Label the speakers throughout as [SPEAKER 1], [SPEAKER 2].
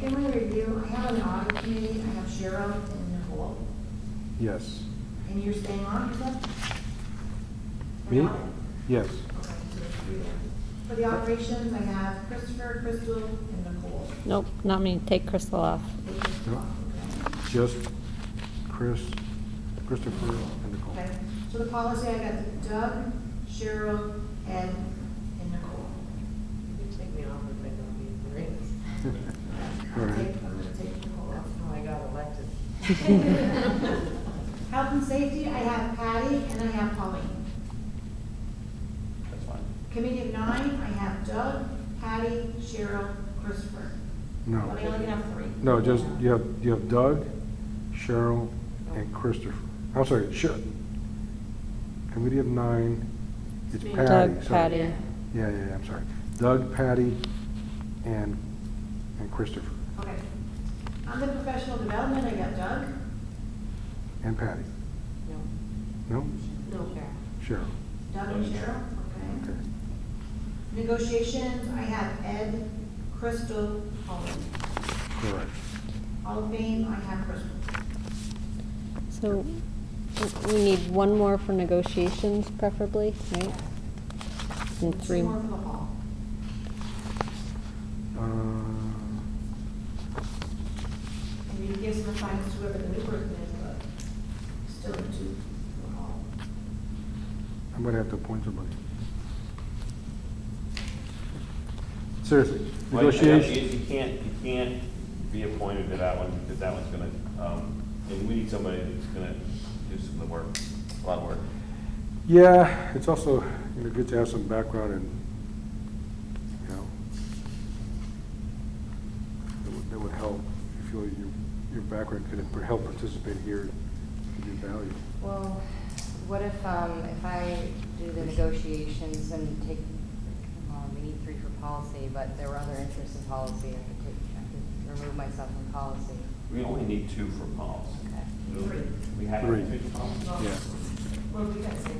[SPEAKER 1] can we review, I have an audit committee, I have Cheryl and Nicole,
[SPEAKER 2] Yes.
[SPEAKER 1] and you're staying on, is that? For
[SPEAKER 2] Me?
[SPEAKER 1] audit?
[SPEAKER 2] Yes.
[SPEAKER 1] Okay, so it's three then. For the operations, I have Christopher, Crystal, and Nicole.
[SPEAKER 3] Nope, not me. Take Crystal off.
[SPEAKER 1] Which is
[SPEAKER 2] Yep.
[SPEAKER 1] awesome,
[SPEAKER 2] Just Chris, Christopher, and Nicole.
[SPEAKER 1] Okay, Okay. so the policy, I got Doug, Cheryl, Ed, and Nicole.
[SPEAKER 4] You take me off if I don't need the rings.
[SPEAKER 2] All
[SPEAKER 1] I'll
[SPEAKER 2] right.
[SPEAKER 1] take, I'm gonna take Nicole off.
[SPEAKER 4] That's how I got elected.
[SPEAKER 1] Health and safety, I have Patty and I have Pauline.
[SPEAKER 5] That's fine.
[SPEAKER 1] Committee of nine, I have Doug, Patty, Cheryl, Christopher. But I
[SPEAKER 2] No,
[SPEAKER 1] only can have three.
[SPEAKER 2] no, just, you have, you have Doug, Cheryl, and Christopher. I'm sorry, Sher, committee of nine, it's
[SPEAKER 4] Me.
[SPEAKER 2] Patty.
[SPEAKER 3] Doug,
[SPEAKER 2] sorry.
[SPEAKER 3] Patty.
[SPEAKER 2] Yeah, yeah, yeah, I'm sorry. Doug, Patty, and, and Christopher,
[SPEAKER 1] Okay. On the professional development, I got Doug,
[SPEAKER 2] and Patty.
[SPEAKER 4] No,
[SPEAKER 2] No?
[SPEAKER 4] no, Karen.
[SPEAKER 2] Cheryl.
[SPEAKER 1] Doug and Cheryl, okay.
[SPEAKER 2] Okay.
[SPEAKER 1] Negotiations, I have Ed, Crystal, Pauline.
[SPEAKER 2] Correct.
[SPEAKER 1] Hall of Fame, I have Crystal.
[SPEAKER 3] So w- we need one more for negotiations preferably, right? And three,
[SPEAKER 1] Two more for the hall.
[SPEAKER 2] Uh,
[SPEAKER 1] And you can give some assignments to whoever the new person is, but still two for the hall.
[SPEAKER 2] I'm gonna have to appoint somebody. Seriously,
[SPEAKER 5] Well, you-
[SPEAKER 2] negotiation,
[SPEAKER 5] You can't, you can't be appointed to that one, because that one's gonna, um, and we need somebody that's gonna do some of the work, a lot of work.
[SPEAKER 2] yeah, it's also, you know, good to have some background and, you know, that would, that would help, if you, your, your background could help participate here, give you value.
[SPEAKER 6] Well, what if, um, if I do the negotiations and take, um, we need three for policy, but there were other interests in policy, I could take, I could remove myself from policy.
[SPEAKER 5] We only need two for policy.
[SPEAKER 6] Okay.
[SPEAKER 1] Three.
[SPEAKER 5] We have to
[SPEAKER 2] Three.
[SPEAKER 5] have two for policy.
[SPEAKER 1] Well,
[SPEAKER 2] Yeah.
[SPEAKER 1] Well, we got six,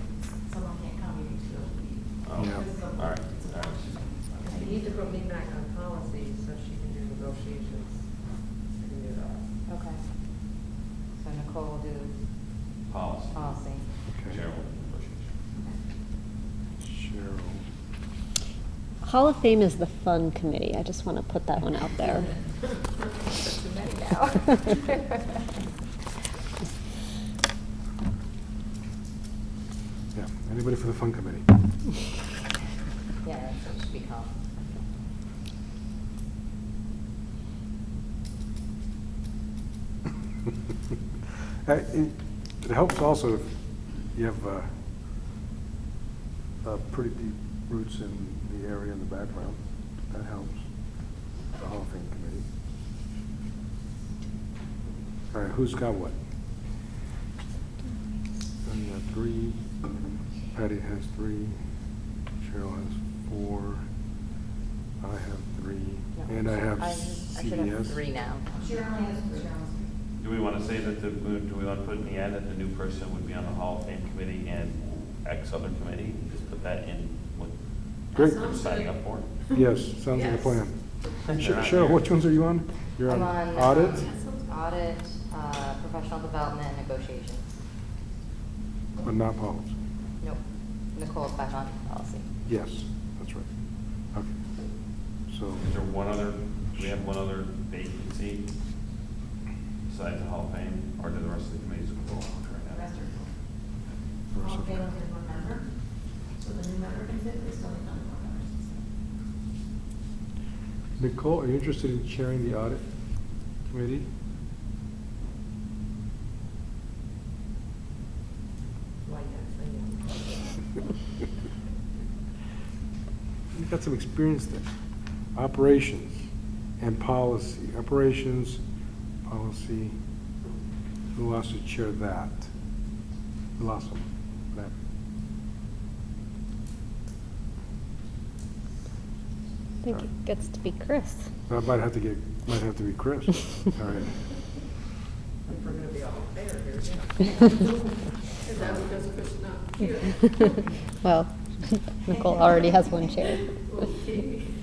[SPEAKER 1] someone can't come, you need to go.
[SPEAKER 5] Oh,
[SPEAKER 2] Yeah.
[SPEAKER 5] All right, all right.
[SPEAKER 4] You need to put me back on policy so she can do negotiations. I can do that.
[SPEAKER 6] Okay. So Nicole will do
[SPEAKER 5] Policy.
[SPEAKER 6] policy.
[SPEAKER 2] Okay.
[SPEAKER 5] Chair will negotiate.
[SPEAKER 2] Cheryl.
[SPEAKER 3] Hall of Fame is the fun committee. I just want to put that one out there.
[SPEAKER 4] Too many
[SPEAKER 6] Now.
[SPEAKER 2] Yeah, anybody for the fun committee?
[SPEAKER 6] Yeah, that's what it should be called.
[SPEAKER 2] Uh, It it helps also if you have uh, uh, pretty deep roots in the area in the background. That helps, the Hall of Fame Committee. All right, who's got what? I've got three, Patty has three, Cheryl has four, I have three,
[SPEAKER 6] No,
[SPEAKER 2] and I have
[SPEAKER 6] I
[SPEAKER 2] CBS.
[SPEAKER 6] I should have three now.
[SPEAKER 1] Cheryl only has three. Cheryl's three.
[SPEAKER 5] Do we want to say that the, do we want to put in the ad that the new person would be on the Hall of Fame committee and X other committee? Just put that in what
[SPEAKER 2] Great.
[SPEAKER 5] they're signing up for?
[SPEAKER 2] Yes, sounds like a plan. Sh- Cheryl, which ones are you on? You're on
[SPEAKER 6] I'm on,
[SPEAKER 2] audit?
[SPEAKER 6] um, Audit, uh, professional development, and negotiations.
[SPEAKER 2] But not policy.
[SPEAKER 6] Nope. Nicole's back on policy.
[SPEAKER 2] Yes, that's right. Okay. So,
[SPEAKER 5] Is there one other, do we have one other vacancy besides the Hall of Fame, or do the rest of the committees go on
[SPEAKER 1] The
[SPEAKER 5] right now?
[SPEAKER 1] rest are full.
[SPEAKER 2] first
[SPEAKER 1] All
[SPEAKER 2] of
[SPEAKER 1] fail
[SPEAKER 2] all,
[SPEAKER 1] and one member, so the new member can fit, there's only none more members.
[SPEAKER 2] Nicole, are you interested in chairing the audit committee?
[SPEAKER 4] Why, yes,
[SPEAKER 2] You've got some experience there. Operations and policy, operations, policy. Who wants to chair that? Who lost one? That.
[SPEAKER 3] I think it gets to be Chris.
[SPEAKER 2] I might have to get, might have to be Chris. All right.
[SPEAKER 4] I know. If we're gonna be all fair here, yeah. Is that what does push not here?
[SPEAKER 3] Well, Nicole already has one chair.
[SPEAKER 4] Okay.